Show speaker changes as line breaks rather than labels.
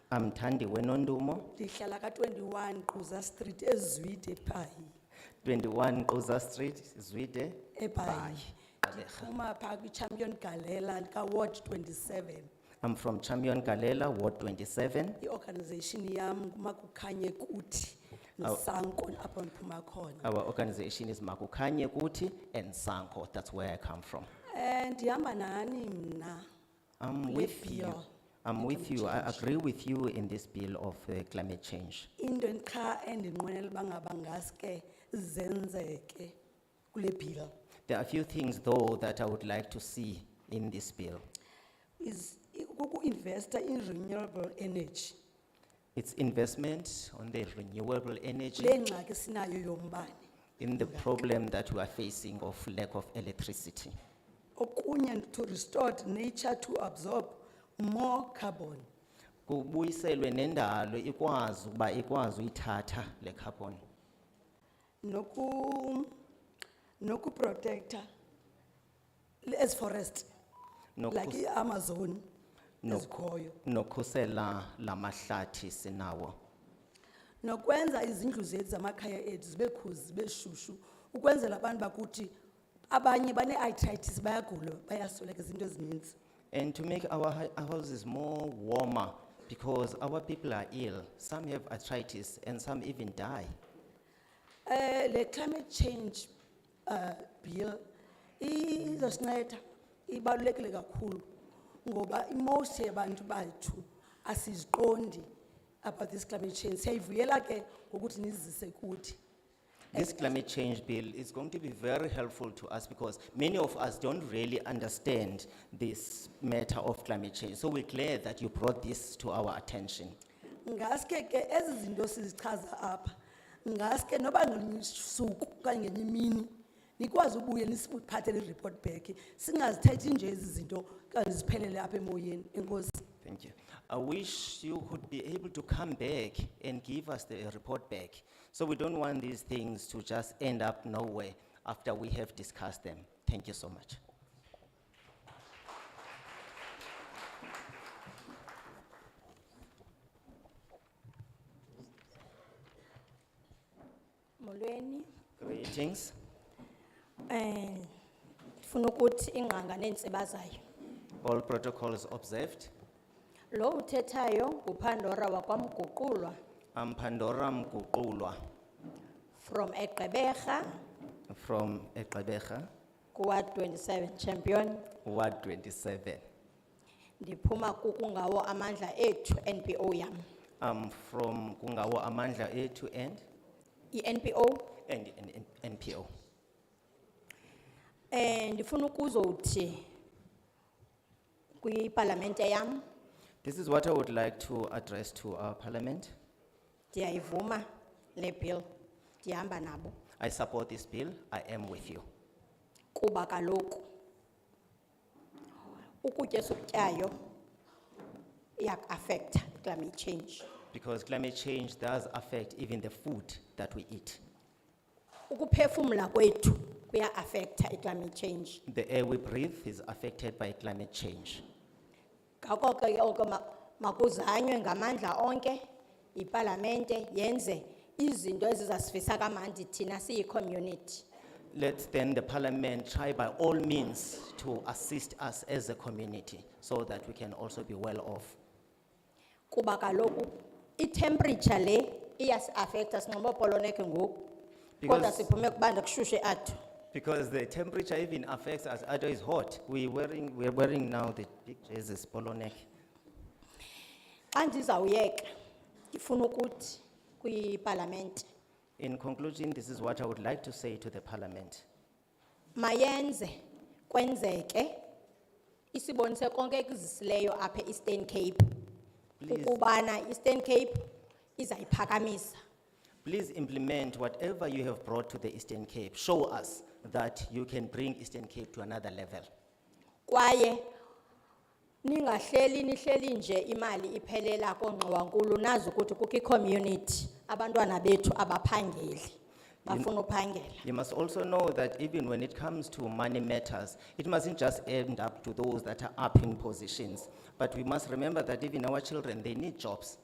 amthandiwe nondumo
ndihlala ka-21 quza street ezwide ebhayi
21 Oza Street Zwide
ebhayi ndiphuma phaa kwichampion galela kaward 27
I'm from Champion Galela Ward 27
i-organization yam kumakukhanye kuthi nosanko apho ndiphuma khona
Our organization is Makukanye Kuti and Sanko that's where I come from
um ndihamba nani mna
I'm
Kule
with you
bill
I'm with you I agree with you in this bill of uh, climate change
into qha endinqwenela uba ngaba ngaske zenzeke kule bill
There are a few things though that I would like to see in this bill
is kukuinvesta in renewable energy
It's investment on the renewable energy
kule ngxaki sinayo yombane
in the problem that we are facing of lack of electricity.
okunye to restore nature to absorb more carbon
Kubuyiselwe nendalo ikwazi ukuba ikwazi uyithatha le carbon
noku nokuprotecta as forest
Nokus-
like iamazon
Nok-
ezikhoyo
nokhusela la mahlathi sinawo.
nokwenza izindlu zethu zamakhaya ethu zibe khuzi zibe shushu ukwenzela abantu bakuthi abanye bane-itritis bayagula bayasweleka izinto ezininzi
And to make our hou- our houses more warmer because our people are ill. Some have arthritis and some even die.
um le climate change um bill izosinceda ibalulekile kakhulu ngoba imost yabantu bathu asiziqondi about this climate change siyayivuyela ke ngokuthi nizise kuthi
This climate change bill is going to be very helpful to us because many of us don't really understand this matter of climate change. So we're glad that you brought this to our attention.
ngaske ke ezi zinto sizichaza apha ngaske noba ngelinye suku okanye ngenye imini nikwazi ubuye nisiphathele i-report back singazithethi nje ezi zinto kanti ziphelele apha emoyeni enkosi
Thank you. I wish you could be able to come back and give us the report back. So we don't want these things to just end up nowhere after we have discussed them. Thank you so much.
Molweni,
Greetings.
eh, ndifuna ukuthi ingqanga neentsiba zayo.
All protocols observed.
Lo uthethayo nguPandora wakwamguqulwa
I'm Pandora Mkukulwa
from eGqeberha
from Ekabecha,
kuwa 27 champion.
Ward twenty-seven.
Ndiphuma kukungawo amandla ethu NPO yam.
I'm from Kungawa Amandla A to N
I-NPO
and and- and NPO.
eh ndifuna ukuzothi kwipalamente yam
This is what I would like to address to our parliament.
ndiyayivuma le bill. Ndihamba nabo
I support this bill. I am with you.
kuba kaloku ukutya esikutyayo iyakuaffecta i-climate change
Because climate change does affect even the food that we eat.
ukuphefumla kwethu kuya-affecta i-climate change
The air we breathe is affected by climate change.
ngako ke oko ma- makuzanywe ngamandla onke yipalamente yenze izinto ezizasifisa kamandi thina siyi-community
Let then the parliament try by all means to assist us as a community so that we can also be well off.
kuba kaloku itemperature le iyasi-affecta sinxibopoloneke ngoku kodwa
Because-
siphume kubanda kushushe athu
Because the temperature even affects us, although it's hot. We wearing, we're wearing now the big jerseys, polo neck.
Xa ndizawuyeka, ndifuna ukuthi kwipalamente
In conclusion, this is what I would like to say to the parliament.
mayenze kwenzeke isibonise konke ekuzisileyo apha Eastern Cape.
Please.
Ukubana Eastern Cape izayiphakamisa.
Please implement whatever you have brought to the Eastern Cape. Show us that you can bring Eastern Cape to another level.
Kwaye ningahleli nihleli nje imali iphelela koongqowankulu nazi ukuthi kukho i-community abantwana bethu abaphangeli bafuna uphangela.
You must also know that even when it comes to money matters, it mustn't just end up to those that are up in positions. But we must remember that even our children, they need jobs.